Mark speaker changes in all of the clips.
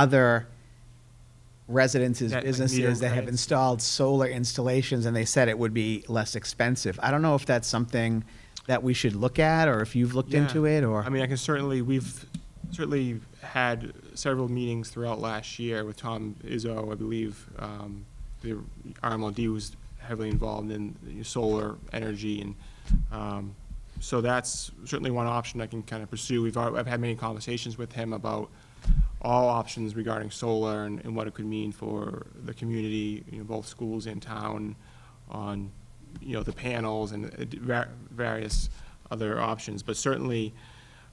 Speaker 1: other residences,
Speaker 2: That, like, meter
Speaker 1: businesses that have
Speaker 2: credits.
Speaker 1: installed solar installations, and they said it would be less expensive. I don't know if that's something that we should look at, or if you've looked
Speaker 2: Yeah.
Speaker 1: into it, or.
Speaker 2: I mean, I can certainly, we've certainly had several meetings throughout last year with Tom Izzo, I believe. Um, The RMLD was heavily involved in the solar energy and, um, so that's certainly one option I can kind of pursue. We've, al- I've had many conversations with him about all options regarding solar and, and what it could mean for the community, you know, both schools and town on, you know, the panels and uh, d- va- various other options, but certainly,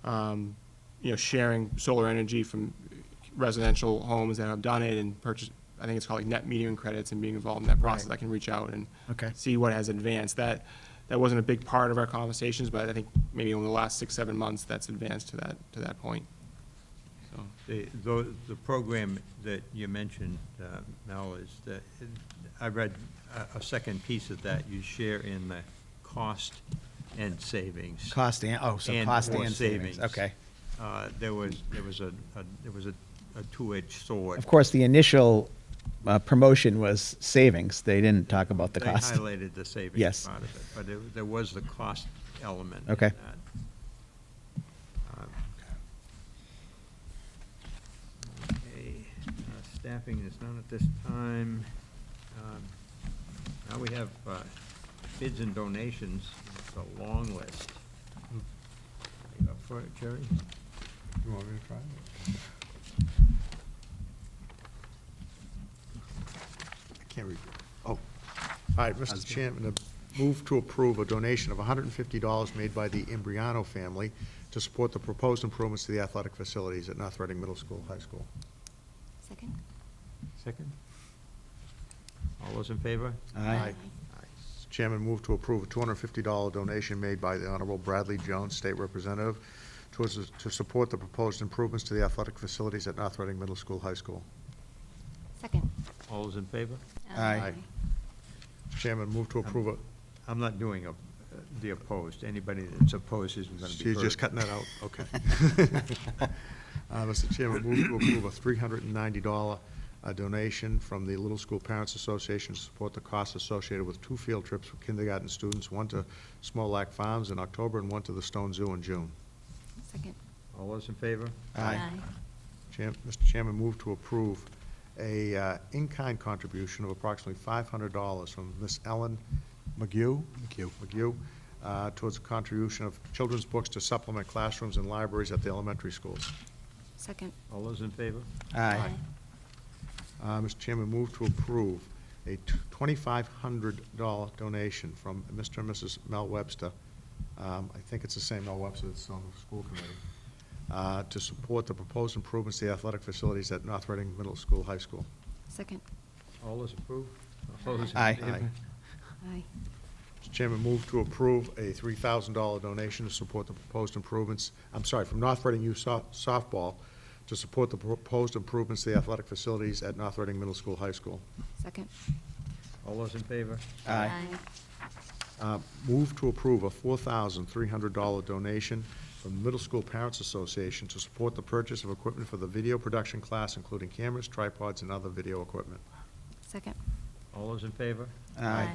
Speaker 2: um, you know, sharing solar energy from residential homes that have done it and purchase, I think it's called like net metering credits and being involved in that process, I can reach out and
Speaker 1: Okay.
Speaker 2: see what has advanced. That, that wasn't a big part of our conversations, but I think maybe over the last six, seven months, that's advanced to that, to that point. So,
Speaker 3: The, tho- the program that you mentioned, uh, Mel, is that, I read a- a second piece of that, you share in the cost and savings.
Speaker 1: Cost and, oh, so
Speaker 3: and
Speaker 1: cost
Speaker 3: or
Speaker 1: and savings, okay.
Speaker 3: Uh, There was, there was a, a- there was a a two-edged sword.
Speaker 1: Of course, the initial uh, promotion was savings, they didn't talk about the cost.
Speaker 3: They highlighted the savings
Speaker 1: Yes.
Speaker 3: part of it, but there- there was the cost element. in
Speaker 1: Okay.
Speaker 3: that. Um, Okay, uh, staffing is none at this time. Um, Now we have uh, bids and donations, it's a long list. You up for it, Jerry?
Speaker 4: You want me to try it? I can't read. Oh. All right, Mr. Chairman, I move to approve a donation of $150 made by the Imbriano family to support the proposed improvements to the athletic facilities at North Reading Middle School, High School.
Speaker 5: Second?
Speaker 3: Second. All those in favor?
Speaker 1: Aye.
Speaker 4: Mr. Chairman, move to approve a $250 donation made by the Honorable Bradley Jones, State Representative, towards, the- to support the proposed improvements to the athletic facilities at North Reading Middle School, High School.
Speaker 5: Second?
Speaker 3: All those in favor?
Speaker 1: Aye.
Speaker 4: Aye. Mr. Chairman, move to approve a,
Speaker 3: I'm not doing a- the opposed. Anybody that's opposed isn't going to be
Speaker 4: So
Speaker 3: heard.
Speaker 4: you're just cutting that out, okay. Uh, Mr. Chairman, move to approve a three hundred and ninety dollar uh, donation from the Little School Parents Association to support the costs associated with two field trips for kindergarten students, one to Small Lac Farms in October and one to the Stone Zoo in June.
Speaker 5: Second?
Speaker 3: All those in favor?
Speaker 4: Chair- Mr. Chairman, move to approve a uh, in-kind contribution of approximately $500 from Miss Ellen McGee. McGee. uh, towards a contribution of children's books to supplement classrooms and libraries at the elementary schools.
Speaker 5: Second?
Speaker 3: All those in favor?
Speaker 1: Aye.
Speaker 4: Uh, Mr. Chairman, move to approve a t- $2,500 donation from Mr. and Mrs. Mel Webster. Um, I think it's the same Mel Webster that's on the school committee, uh, to support the proposed improvements to the athletic facilities at North Reading Middle School, High School.
Speaker 5: Second?
Speaker 3: All those approved? All those in
Speaker 1: Aye.
Speaker 3: favor?
Speaker 5: Aye.
Speaker 4: Mr. Chairman, move to approve a $3,000 donation to support the proposed improvements, I'm sorry, from North Reading Youth So- Softball to support the proposed improvements to the athletic facilities at North Reading Middle School, High School.
Speaker 5: Second?
Speaker 3: All those in favor?
Speaker 1: Aye.
Speaker 4: Uh, Move to approve a $4,300 donation from the Middle School Parents Association to support the purchase of equipment for the video production class, including cameras, tripods, and other video equipment.
Speaker 5: Second?
Speaker 3: All those in favor?
Speaker 1: Aye.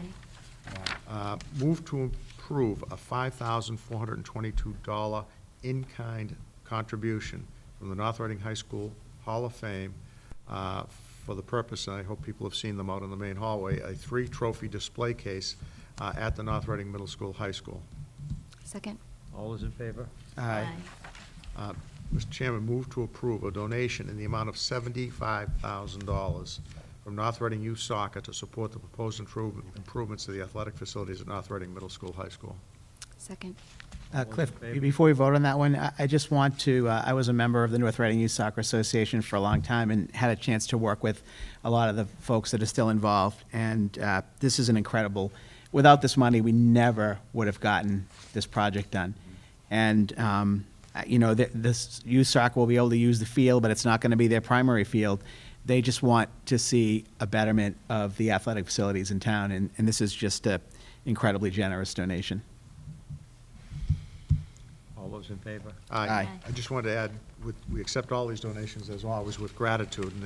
Speaker 4: Uh, Move to approve a $5,422 in-kind contribution from the North Reading High School Hall of Fame uh, for the purpose, and I hope people have seen them out in the main hallway, a three-trophy display case uh, at the North Reading Middle School, High School.
Speaker 5: Second?
Speaker 3: All those in favor?
Speaker 1: Aye.
Speaker 4: Uh, Mr. Chairman, move to approve a donation in the amount of seventy-five thousand dollars from North Reading Youth Soccer to support the proposed improve- improvements to the athletic facilities at North Reading Middle School, High School.
Speaker 5: Second?
Speaker 1: Uh,
Speaker 3: All in
Speaker 1: Cliff,
Speaker 3: favor?
Speaker 1: before we vote on that one, I, I just want to, uh, I was a member of the North Reading Youth Soccer Association for a long time and had a chance to work with a lot of the folks that are still involved. And, uh, this is an incredible, without this money, we never would have gotten this project done. And, um, I- you know, th- this youth soccer will be able to use the field, but it's not gonna be their primary field. They just want to see a betterment of the athletic facilities in town, and, and this is just a incredibly generous donation.
Speaker 3: All those in favor?
Speaker 4: Aye.
Speaker 1: Aye.
Speaker 4: I just wanted to add, with, we accept all these donations as always with gratitude, and